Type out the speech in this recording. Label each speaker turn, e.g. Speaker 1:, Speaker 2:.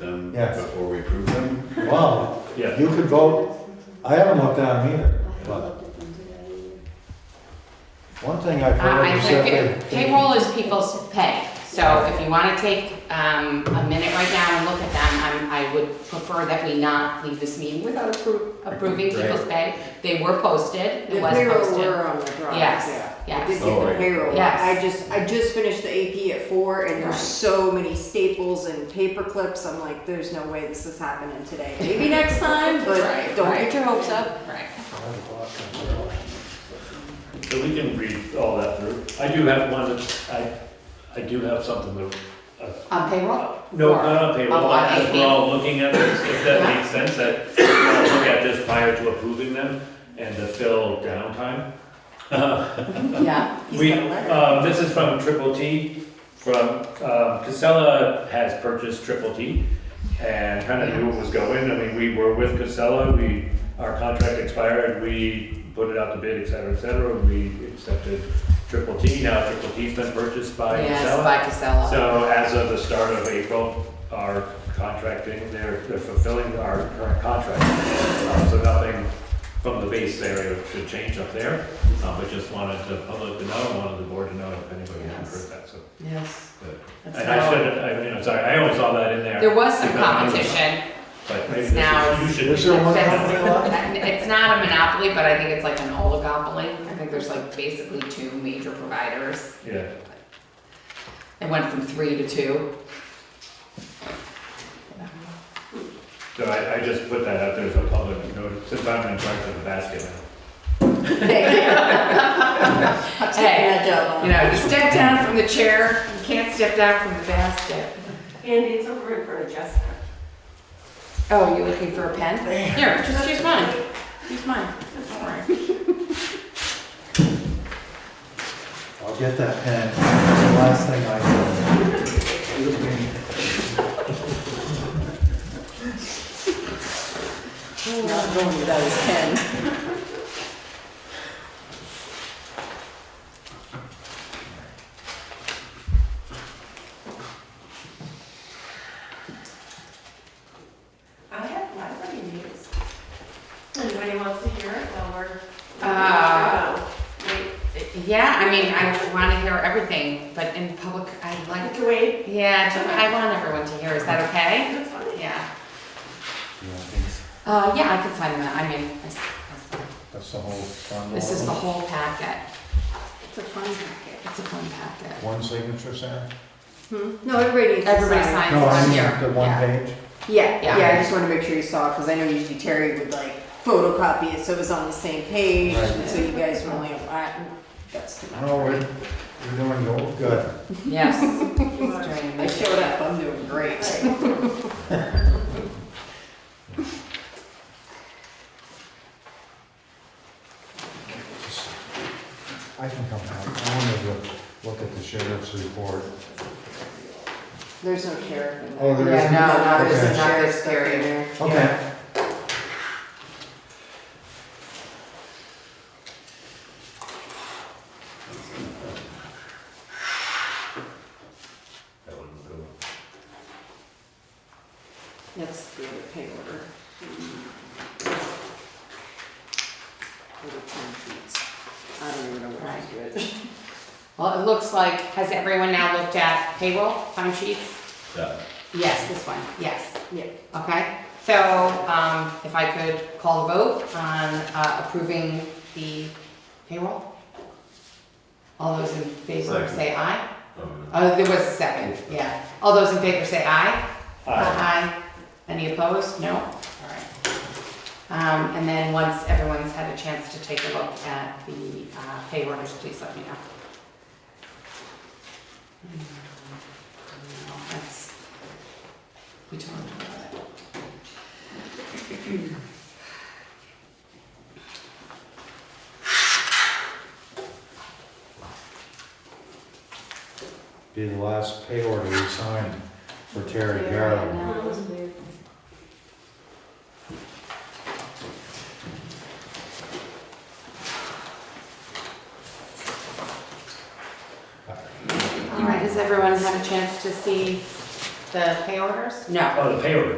Speaker 1: them
Speaker 2: Yes.
Speaker 1: before we approve them.
Speaker 2: Wow,
Speaker 3: Yeah,
Speaker 2: you could vote, I haven't looked down either, but one thing I've heard
Speaker 4: I
Speaker 2: is that
Speaker 4: think
Speaker 2: they.
Speaker 4: payroll is people's pay, so if you wanna take, um, a minute right now and look at them, I'm, I would prefer that we not leave this meeting without appro- approving people's pay. They were posted,
Speaker 5: The
Speaker 4: it was
Speaker 5: payroll
Speaker 4: posted.
Speaker 5: were on the drive,
Speaker 4: Yes,
Speaker 5: yeah. I
Speaker 4: yes.
Speaker 5: did
Speaker 1: Oh,
Speaker 5: get the
Speaker 1: right.
Speaker 5: payroll.
Speaker 4: Yes.
Speaker 5: I just, I just finished the AP at four and
Speaker 4: Right.
Speaker 5: there's so many staples and paper clips. I'm like, there's no way this is happening today. Maybe next time,
Speaker 4: Right,
Speaker 5: but don't
Speaker 4: right.
Speaker 5: get your hopes up.
Speaker 4: Right.
Speaker 3: so we can read all that through. I do have one, that I, I do have something that,
Speaker 4: On payroll?
Speaker 3: no,
Speaker 4: Or-
Speaker 3: not on
Speaker 4: on
Speaker 3: payroll, as
Speaker 4: AP.
Speaker 3: we're all looking at this, if that makes sense, that we'll look at this prior to approving them and to fill downtime.
Speaker 4: Yeah.
Speaker 5: He's
Speaker 3: We,
Speaker 5: got a letter.
Speaker 3: um, this is from Triple T, from, um, Casella has purchased Triple T and kind of knew what was going. I mean, we were with Casella, we, our contract expired, we put it out to bid, et cetera, et cetera, and we accepted Triple T. Now Triple T's been purchased by
Speaker 4: Yes,
Speaker 3: Casella.
Speaker 4: by Casella.
Speaker 3: So as of the start of April, our contracting, they're, they're fulfilling our current contract. Uh, So nothing from the base area should change up there, Uh, but just wanted the public to know, wanted the board to know if anybody had heard that, so.
Speaker 4: Yes.
Speaker 3: but-
Speaker 4: That's
Speaker 3: And I
Speaker 4: how-
Speaker 3: should, I mean, I'm sorry, I always saw that in
Speaker 4: There
Speaker 3: there,
Speaker 4: was some
Speaker 3: Because I knew-
Speaker 4: competition,
Speaker 3: but maybe
Speaker 4: It's now-
Speaker 3: this is, you
Speaker 2: Is
Speaker 3: should.
Speaker 2: there one
Speaker 4: That's-
Speaker 2: company left?
Speaker 4: It's not a monopoly, but I think it's like an oligopoly. I think there's like basically two major providers.
Speaker 3: Yeah,
Speaker 4: It went from three to two.
Speaker 3: so I, I just put that out there as a public notice, since I'm in charge of the basket now.
Speaker 5: I'm taking
Speaker 4: Hey,
Speaker 5: that job on.
Speaker 4: you know, you step down from the chair, you can't step down from the basket.
Speaker 6: Andy, it's over for adjustment.
Speaker 4: Oh, you're looking for a pen? Here, just use mine. Use mine. Don't worry.
Speaker 2: I'll get that pen, It's the last thing I
Speaker 5: Not going without his pen.
Speaker 6: I have library news. Anybody wants to hear it while we're.
Speaker 4: Uh, Yeah, I mean, I want to hear everything, but in public, I
Speaker 6: I
Speaker 4: like,
Speaker 6: can wait.
Speaker 4: yeah, I want everyone to hear. Is that okay?
Speaker 6: That's fine.
Speaker 4: Yeah.
Speaker 2: do.
Speaker 4: Uh, yeah, I can sign that. I mean, I s- I s-
Speaker 2: That's the whole bundle.
Speaker 4: This is the whole packet.
Speaker 5: It's a fun packet.
Speaker 4: It's a fun packet.
Speaker 2: One signature, Sam?
Speaker 5: Hmm? No, everybody needs to
Speaker 4: Everybody
Speaker 5: sign.
Speaker 4: signs
Speaker 2: No, I
Speaker 4: on
Speaker 2: mean,
Speaker 4: here.
Speaker 2: the one
Speaker 4: Yeah.
Speaker 2: page?
Speaker 5: Yeah,
Speaker 4: Yeah.
Speaker 5: yeah, I just wanted to make sure you saw, because I know usually Terry would like photocopy it, so it was on the same page,
Speaker 2: Right.
Speaker 5: and so you guys were only, I, that's too much.
Speaker 2: No, we're, we're doing go- good.
Speaker 4: Yes.
Speaker 6: You want to-
Speaker 5: I showed up, I'm doing great.
Speaker 2: I can come out, I wanted to look at the sheriff's report.
Speaker 5: There's no sheriff in there.
Speaker 2: Oh, there
Speaker 4: Yeah,
Speaker 2: isn't?
Speaker 4: no, no, there's
Speaker 2: Okay.
Speaker 4: not
Speaker 5: Sheriff's
Speaker 4: this
Speaker 5: stuff in
Speaker 4: period.
Speaker 5: there.
Speaker 2: Okay.
Speaker 1: That wouldn't go.
Speaker 5: That's the other pay order. Little time sheets. I don't even know what to do it.
Speaker 4: Well, it looks like, has everyone now looked at payroll, time sheets?
Speaker 1: That,
Speaker 4: Yes, this one, yes.
Speaker 5: Yeah.
Speaker 4: Okay, so, um, if I could call the vote on uh, approving the payroll? All those in favor
Speaker 1: Second.
Speaker 4: say aye?
Speaker 1: um,
Speaker 4: Oh, there was a second, yeah. All those in favor say aye?
Speaker 3: Uh,
Speaker 4: Aye. Oh, Any opposed? No? All right. Um, And then once everyone's had a chance to take a look at the uh, pay orders, please let me know. Mm, No, that's- We talked about that.
Speaker 2: Be the last pay order we signed for Terry Garland.
Speaker 4: All right, has everyone had a chance to see
Speaker 7: the pay orders? No.
Speaker 4: Oh, the pay order.